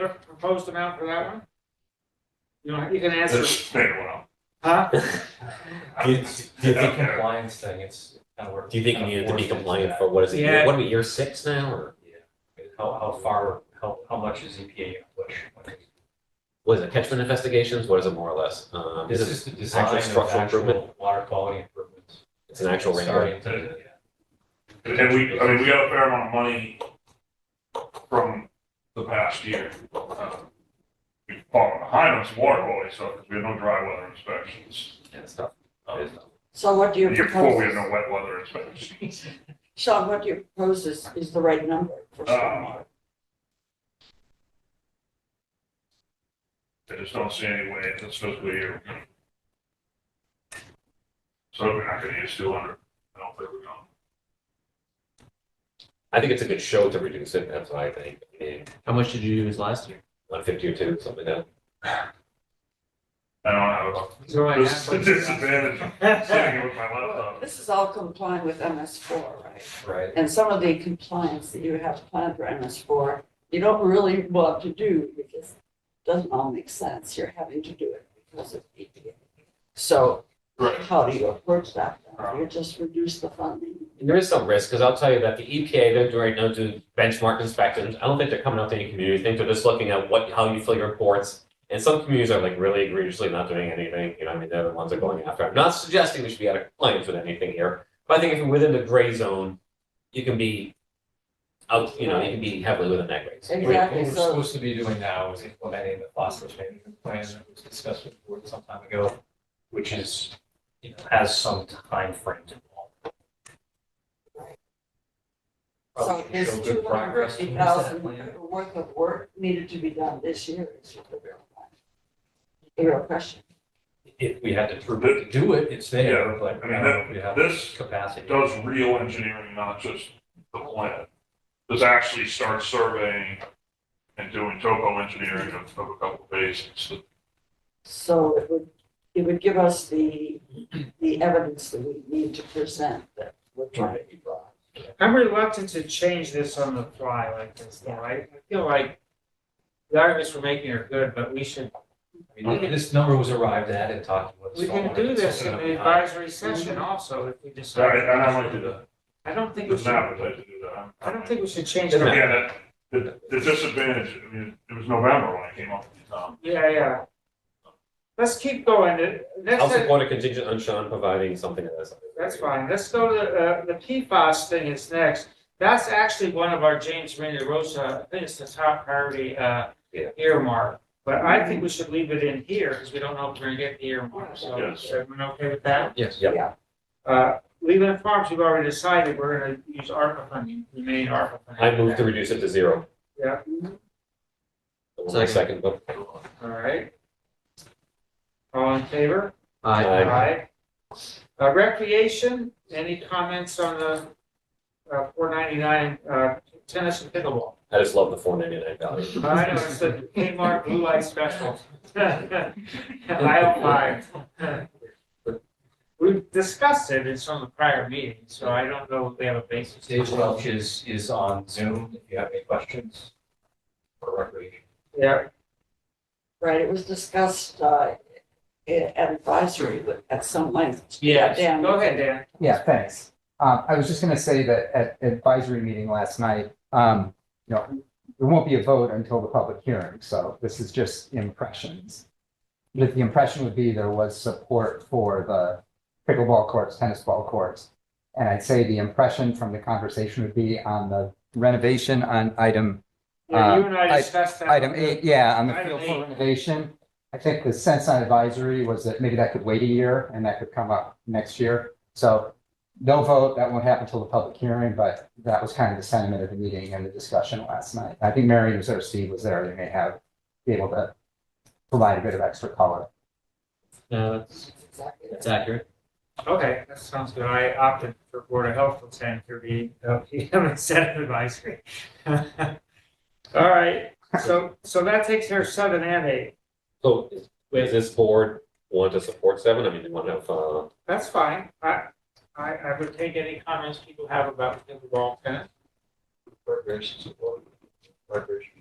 the proposed amount for that one? You know, you can Let's answer, figure it out. huh? Do you, do you think compliance thing, it's kind of worth? Do you think you kind needed to of be worth it compliant that? for, what is it, Yeah. year- what are we, year six now, or How, how far, how, how much is E EPA gonna push? what is it, catchment investigations, what is it more or less? Um, This is is it, the design of structural improvement? actual water quality improvements. it's an actual ringer? Starting to- yeah. And we, I mean, we got a fair amount of money from the past year. Uh, We've fallen behind on some water quality stuff because we had no dry weather inspections. Yeah, it's tough. It's tough. So what do you The year before, we had propose? no wet weather inspections. Sean, what do you propose is, is the right number for Um, stormwater? I just don't see any way this fiscal year. we're gonna- So we're not gonna use two hundred. I don't think we're gonna. I think it's a good show to reduce it, that's what I think, I mean, How much did you use last year? one fifty or two, something like that. I don't have So a, I this is a have- disadvantage of sitting here with my laptop. This is all compliant with MS four, right? Right. And some of the compliance that you have planned for MS four, you don't really want to do because it doesn't all make sense. You're having to do it because of EPA. So Right. how do you approach that? then? Um, You just reduce the funding. And there is some risk, because I'll tell you that the EPA, they're doing, they'll do benchmark inspections. I don't think they're coming out to any community. I think they're just looking at what, how you fill your reports. And some communities are like really egregiously not doing anything, you know, I mean, they're the ones that are going after. I'm not suggesting we should be out of compliance with anything here, but I think if you're within the gray zone, you can be out, you know, you can be heavily within that gray. zone. What what Exactly, we're so- supposed to be doing now is implementing the phosphorus management plan that was discussed with the board some time ago, which is, you know, has some timeframes involved. So Probably should there's show good two hundred progress fifty towards that thousand plan. worth of work needed to be done this year. is the real question. The real question. If we had the to do it, it's there, but I I mean, don't know if we have this the capacity. does real engineering, not just the plan. Does actually start surveying and doing topo engineering of of a couple of basins. So it would, it would give us the, the evidence that we need to present that we're trying to be brought. I'm reluctant to change this on the fly like this, though. I I feel like the arguments we're making are good, but we should, I mean, This number was arrived at and talked with. we can stormwater do this in consultant. the advisory session also if we So I, decide. and I might do that. I don't think we It's should, not I related to do that. don't think we should change Doesn't it. matter. Again, that- the, the disadvantage, I mean, it was November when I came up with the town. Yeah, yeah. Let's keep going. The- I'll Next, support a contingent on Sean providing something to this. that's fine. Let's go to uh, the PFAS thing is next. That's actually one of our James Maynard Rosa, I think it's the top priority uh, Yeah. earmark. But I think we should leave it in here because we don't know if we're gonna get the earmark. So Yes. is everyone okay with that? Yes. Yep. Yeah. Uh, Leland Farms, we've already decided we're gonna use ARPA funding, the main ARPA funding. I move to reduce it to zero. Yeah. One more second, but All right. All in favor? Aye. Aye. Uh, recreation, any comments on the, uh, four ninety-nine, uh, tennis and pickleball? I just love the four ninety-nine value. I know, it's the Kmart Blue Light Special. Aisle five. We've discussed it in some of the prior meetings, so I don't know if they have a basis. Dave Welch is, is on Zoom if you have any questions for recreation. Yeah, Right, it was discussed, uh, i- at advisory with- at some length. yes, Dan, go ahead, Dan. Yeah, thanks. Um, I was just gonna say that at advisory meeting last night, um, you know, there won't be a vote until the public hearing, so this is just impressions. But the impression would be there was support for the pickleball courts, tennis ball courts. And I'd say the impression from the conversation would be on the renovation on item, Yeah, You Uh, and I I- discussed that. item eight, yeah, on the Item field for eight. renovation. I think the sense on advisory was that maybe that could wait a year and that could come up next year. So no vote, that won't happen till the public hearing, but that was kind of the sentiment of the meeting and the discussion last night. I think Mary Mazursky was there, they may have, be able to provide a bit of extra color. No, Uh, that's, Exactly. accurate. Okay, that sounds good. I opted for Board of Health at ten thirty, instead uh, of advisory. All right, so, so that takes care of seven and eight. So is- does this board want to support seven? I mean, they want to have, uh, That's fine. I, I, I would take any comments people have about pickleball tennis. Recreation support. Recreation.